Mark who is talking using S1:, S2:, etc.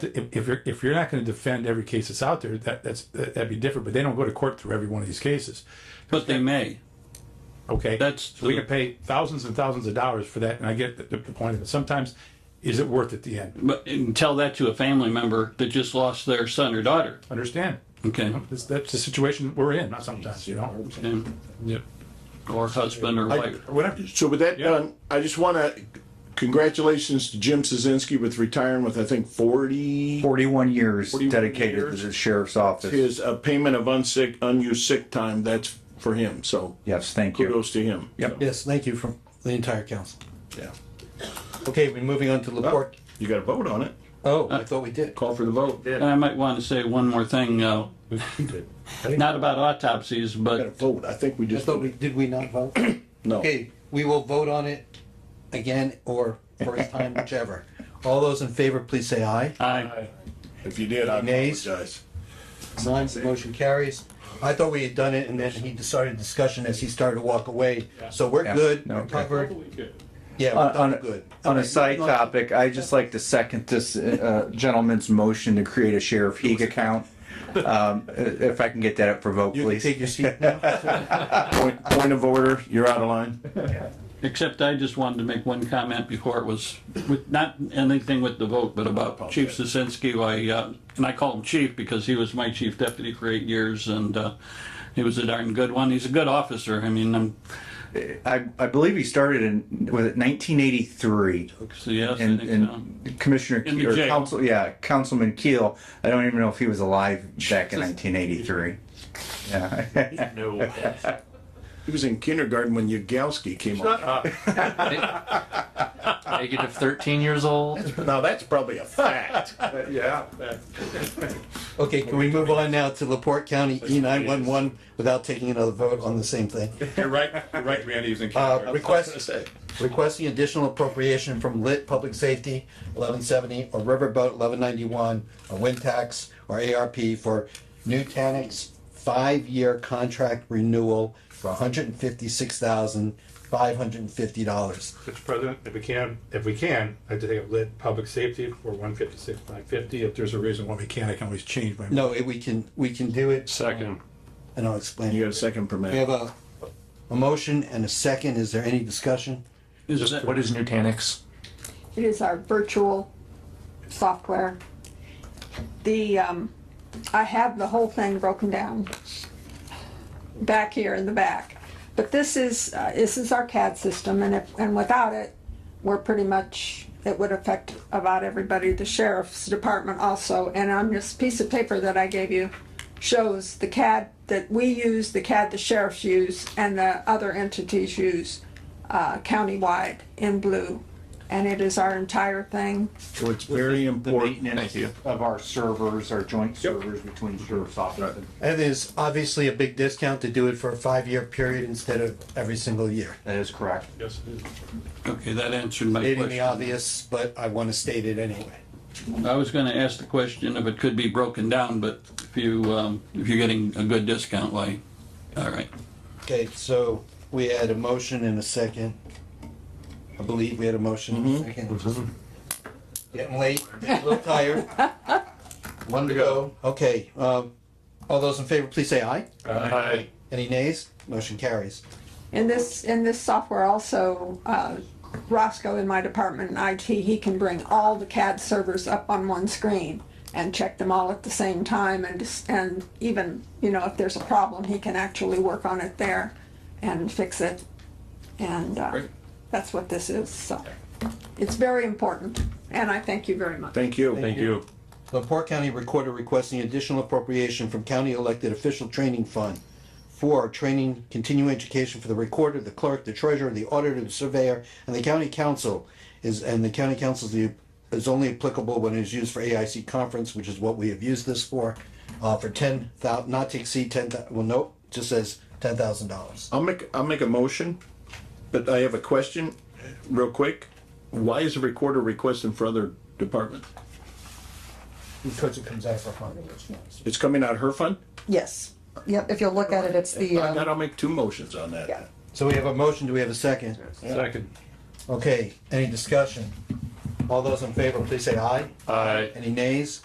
S1: if, if you're, if you're not gonna defend every case that's out there, that, that's, that'd be different, but they don't go to court through every one of these cases,
S2: But they may.
S1: okay?
S2: That's
S1: So we
S2: the-
S1: can pay thousands and thousands of dollars for that, and I get the, the point of it. Sometimes, is it worth at the end?
S2: But and tell that to a family member that just lost their son or daughter.
S1: Understand?
S2: Okay.
S1: That's, that's the situation we're in, not sometimes, you know?
S2: And-
S1: Yep.
S2: or husband or
S1: Or
S2: wife.
S1: Whatever.
S3: So with that done, I just want to congratulations to Jim Szynski with retiring with I think forty
S4: Forty-one years
S3: 41
S4: dedicated
S3: years.
S4: to the sheriff's office.
S3: his uh, payment of unsick unused sick time. That's for him. So
S4: Yes, thank you.
S3: kudos to him.
S4: Yep.
S5: Yes, thank you from the entire council.
S3: Yeah.
S5: Okay, we're moving on to
S4: Oh.
S5: Laporte.
S3: You got to vote on it.
S5: Oh, I thought we did.
S3: Call for the vote.
S2: And I might want to say one more thing, uh, not about autopsies,
S3: Got to
S2: but
S3: vote. I think we
S5: I
S3: just
S5: thought we, did we not vote?
S3: no.
S5: Okay, we will vote on it again or first time, whichever. All those in favor, please say aye.
S2: I,
S3: If you did, I
S5: Nays?
S3: apologize.
S5: Nine, motion carries. I thought we had done it and then he decided discussion as he started to walk away. So we're
S4: Yeah.
S5: good,
S4: No,
S5: we're
S4: okay.
S5: covered. Yeah,
S4: On,
S5: we're done
S4: on,
S5: good.
S4: a- on a side topic, I just like to second this, uh, gentleman's motion to create a Sheriff Heeg account. Um, i- if I can get that up for vote,
S5: You can
S4: please.
S5: take your seat now.
S3: Point, point of order. You're out of line.
S2: except I just wanted to make one comment before it was, with, not anything with the vote, but about Chief Sosinski, who I, uh, and I call him chief because he was my chief deputy for eight years and, uh, he was a darn good one. He's a good officer. I mean, I'm,
S4: I, I believe he started in, was it nineteen eighty-three?
S2: so yes, I
S4: And,
S2: think so.
S4: and Commissioner,
S2: In the
S4: Ke- or
S2: jail.
S4: Council, yeah, Councilman Keel, I don't even know if he was alive back in nineteen eighty-three. Yeah.
S3: He was in kindergarten when Yagowski came up.
S6: negative 13 years old.
S3: Now that's probably a fact.
S4: Yeah.
S5: Okay, can we move on now to Laporte County E nine one one without taking another vote on the same thing?
S1: You're right, you're right, Randy, he's in.
S5: Uh, request, requesting additional appropriation from lit public safety, eleven seventy, or riverboat, eleven ninety-one, or wind tax, or ARP for new Nutanix's five-year contract renewal for hundred and fifty-six thousand, five hundred and fifty dollars.
S1: Mr. President, if we can, if we can, I'd take up lit public safety for one fifty-six, five fifty. If there's a reason why we can't, I can always change my.
S5: No, it- we can, we can do it. Second. And I'll explain.
S3: You got a second per
S5: We
S3: minute.
S5: have a, a motion and a second. Is there any discussion?
S2: Is that-
S6: What is Nutanix?
S7: It is our virtual software. The, um, I have the whole thing broken down back here in the back. But this is, uh, this is our CAD system and if, and without it, we're pretty much, it would affect about everybody, the sheriff's department also. And on this piece of paper that I gave you shows the CAD that we use, the CAD the sheriffs use, and the other entities use, uh, countywide in blue. And it is our entire thing.
S3: So it's very important.
S4: Of our servers, our joint servers between sheriff's office and
S5: And there's obviously a big discount to do it for a five-year period instead of every single year.
S4: That is correct.
S1: Yes, it is.
S2: Okay, that answered my
S5: Stating the
S2: question.
S5: obvious, but I want to state it anyway.
S2: I was gonna ask the question if it could be broken down, but if you, um, if you're getting a good discount, why, all right.
S5: Okay, so we had a motion and a second. I believe we had a motion and a second. Getting late, a little tired. One to go. Okay, um, all those in favor, please say aye.
S1: Aye.
S5: Any nays? Motion carries.
S7: In this, in this software also, uh, Roscoe in my department in IT, he can bring all the CAD servers up on one screen and check them all at the same time and, dis- and even, you know, if there's a problem, he can actually work on it there and fix it. And, uh, that's what this is, so. It's very important, and I thank you very much.
S3: Thank you. Thank you.
S5: Laporte County Recorder requesting additional appropriation from County Elected Official Training Fund for training, continuing education for the recorder, the clerk, the treasurer, the auditor, the surveyor, and the county council is, and the county council is the- is only applicable when it is used for AIC conference, which is what we have used this for, uh, for ten thou, not to exceed ten thou, well, nope, just says ten thousand dollars.
S3: I'll make, I'll make a motion, but I have a question, real quick. Why is the recorder requesting for other departments?
S5: Because it comes out of our fund.
S3: It's coming out of her fund?
S8: Yes. Yep, if you'll look at it, it's the,
S3: That
S8: um,
S3: I'll make two motions on that.
S8: Yeah.
S5: So we have a motion, do we have a second?
S1: Second.
S5: Okay, any discussion? All those in favor, please say aye.
S6: Aye.
S5: Any nays?